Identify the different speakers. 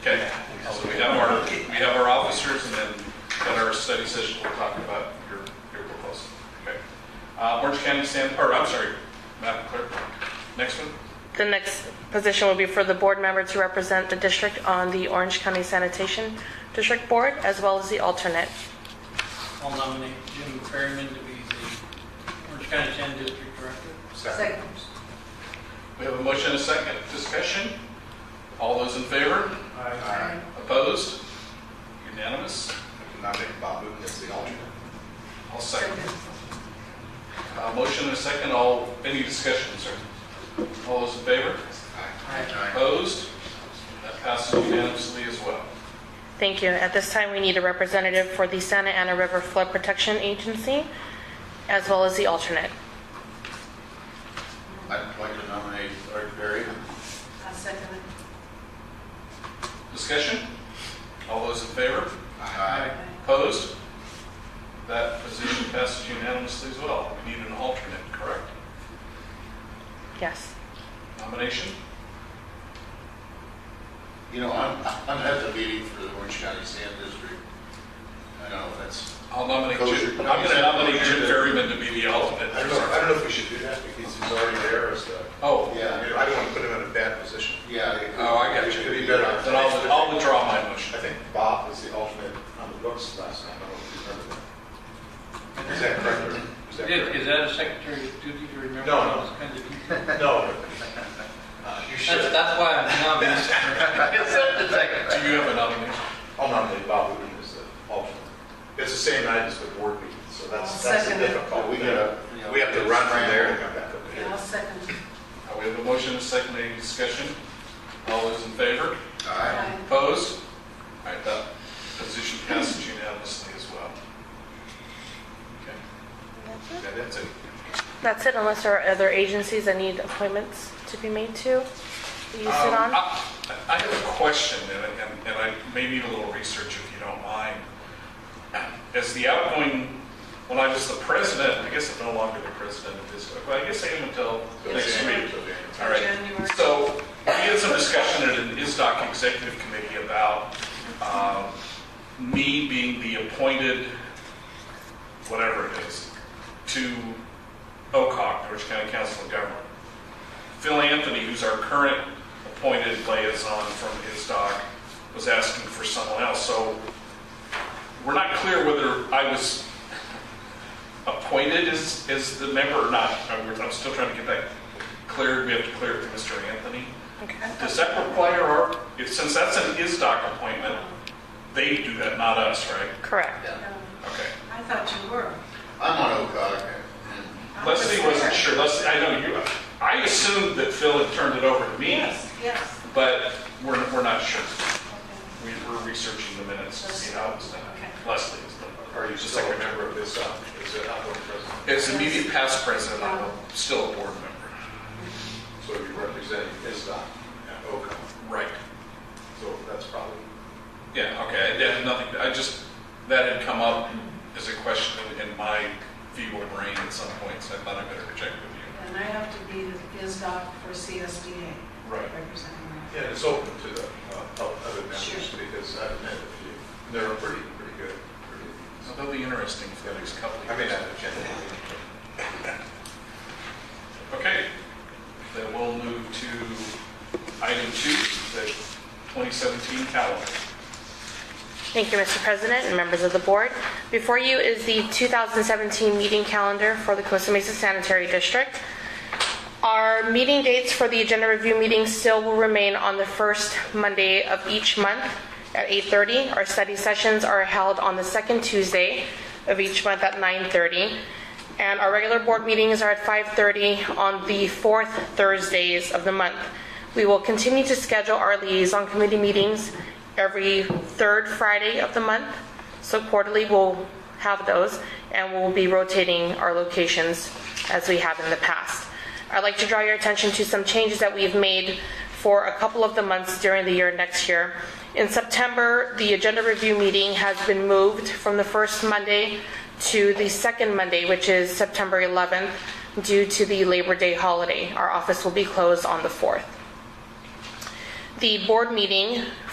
Speaker 1: Okay, so we have our, we have our officers and then at our study session, we'll talk about your, your proposal. Okay. Uh, Orange County San, or I'm sorry, Madam Clerk, next one?
Speaker 2: The next position will be for the board member to represent the district on the Orange County Sanitation District Board, as well as the alternate.
Speaker 3: I'll nominate Jim Perryman to be the Orange County 10 District Director.
Speaker 4: Second.
Speaker 1: We have a motion and a second. Discussion? All those in favor?
Speaker 4: Aye.
Speaker 1: Opposed? Unanimous?
Speaker 5: Nominate Bob Newton as the alternate.
Speaker 1: I'll second. Uh, Motion and a second. All, any discussion, sir? All those in favor?
Speaker 5: Aye.
Speaker 1: Opposed? That passes unanimously as well.
Speaker 2: Thank you. At this time, we need a representative for the Santa Ana River Flood Protection Agency, as well as the alternate.
Speaker 5: I'd like to nominate Art Berry.
Speaker 4: I'll second it.
Speaker 1: Discussion? All those in favor?
Speaker 5: Aye.
Speaker 1: Opposed? That position passes unanimously as well. We need an alternate, correct?
Speaker 2: Yes.
Speaker 1: Nomination?
Speaker 5: You know, I'm, I'm at the meeting for the Orange County Sand District. I know, that's.
Speaker 1: I'll nominate
Speaker 5: Kosher.
Speaker 1: Jim. I'm going to nominate Jim Ferryman to be the alternate.
Speaker 6: I don't know, I don't know if we should do that because he's already there as the,
Speaker 1: Oh,
Speaker 6: I mean, I don't want to put him in a bad position.
Speaker 5: Yeah. it-
Speaker 1: Oh, I got
Speaker 6: It
Speaker 1: you.
Speaker 6: could be better.
Speaker 1: Then I'll, I'll withdraw my
Speaker 6: I
Speaker 1: motion.
Speaker 6: think Bob was the alternate on the books last time, I don't know if you remember that. Is that correct? or- is that correct?
Speaker 3: Is that a secretary duty to remember?
Speaker 6: No, no.
Speaker 3: all those kinds of details?
Speaker 6: No. Uh, You
Speaker 3: That's,
Speaker 6: should.
Speaker 3: that's why I'm nominating.
Speaker 1: Do you have a nomination?
Speaker 6: I'll nominate Oh, Bob Wooten as the alternate. It's the same night as the board meeting, so that's,
Speaker 4: I'll
Speaker 6: that's a
Speaker 4: second it.
Speaker 6: difficult. uh,
Speaker 5: Oh, we gotta.
Speaker 6: We have to run from there and come back up
Speaker 4: I'll
Speaker 6: here.
Speaker 4: second it.
Speaker 1: Uh, We have a motion, and a second, any discussion? All those in favor?
Speaker 5: Aye.
Speaker 1: Opposed? All right, that position passes unanimously as well. Okay. Yeah, that's it.
Speaker 2: That's it, unless there are other agencies that need appointments to be made to, that you sit
Speaker 1: Um,
Speaker 2: on?
Speaker 1: I I have a question, and I- and- and I may need a little research if you don't mind. As the outgoing, when I was the president, I guess I'm no longer the president of this, but I guess I am until
Speaker 6: So
Speaker 1: next
Speaker 6: it's
Speaker 1: week.
Speaker 6: January, so January.
Speaker 1: All right,
Speaker 4: January.
Speaker 1: so we had some discussion at an ISDOC executive committee about um, me being the appointed, whatever it is, to OCOG, Orange County Council of Government. Phil Anthony, who's our current appointed liaison from ISDOC, was asking for someone else. So we're not clear whether I was appointed as, as the member or not. I'm I'm still trying to get that cleared. We have to clear it to Mr. Anthony. Does that require our, if, since that's an ISDOC appointment, they do that, not us, right?
Speaker 2: Correct.
Speaker 1: Okay.
Speaker 4: Um, I thought you were.
Speaker 5: I'm on OCOG. and
Speaker 4: I
Speaker 1: Leslie wasn't
Speaker 4: there.
Speaker 1: sure. Leslie, I know you, I assumed that Phil had turned it over to me,
Speaker 4: Yes, yes.
Speaker 1: but we're, we're not sure.
Speaker 4: Okay.
Speaker 1: We- We're researching the minutes to see how it was done.
Speaker 4: Okay.
Speaker 1: Leslie is the.
Speaker 6: Are you
Speaker 1: the
Speaker 6: still a
Speaker 1: secretary.
Speaker 6: member of this, uh, is it outgoing president?
Speaker 1: As immediate past president, I'm a- still a board member.
Speaker 6: So you're representing ISDOT uh, at OCOG,
Speaker 1: Right.
Speaker 6: so that's probably,
Speaker 1: Yeah, okay, that had nothing, I just, that had come up as a question in- in my feeble brain at some point, so I thought I better check with you.
Speaker 4: And I have to be the ISDOC for CSDA.
Speaker 1: Right.
Speaker 4: Representing
Speaker 6: yeah, it's open to the uh, pub- other members
Speaker 4: Sure.
Speaker 6: because I've met a few. They're pretty, pretty good. pretty-
Speaker 1: So that'll be interesting for the next couple of
Speaker 6: I mean,
Speaker 1: years.
Speaker 6: not a general. uh,
Speaker 1: Okay, then we'll move to item two, the 2017 calendar.
Speaker 2: Thank you, Mr. President and members of the board. Before you is the 2017 meeting calendar for the Costa Mesa Sanitary District. Our meeting dates for the agenda review meeting still will remain on the first Monday of each month at 8:30. Our study sessions are held on the second Tuesday of each month at 9:30. And our regular board meetings are at 5:30 on the fourth Thursdays of the month. We will continue to schedule our liaison committee meetings every third Friday of the month. So quarterly, we'll have those, and we'll be rotating our locations as we have in the past. I'd like to draw your attention to some changes that we've made for a couple of the months during the year next year. In September, the agenda review meeting has been moved from the first Monday to the second Monday, which is September 11th, due to the Labor Day holiday. Our office will be closed on the 4th. The board meeting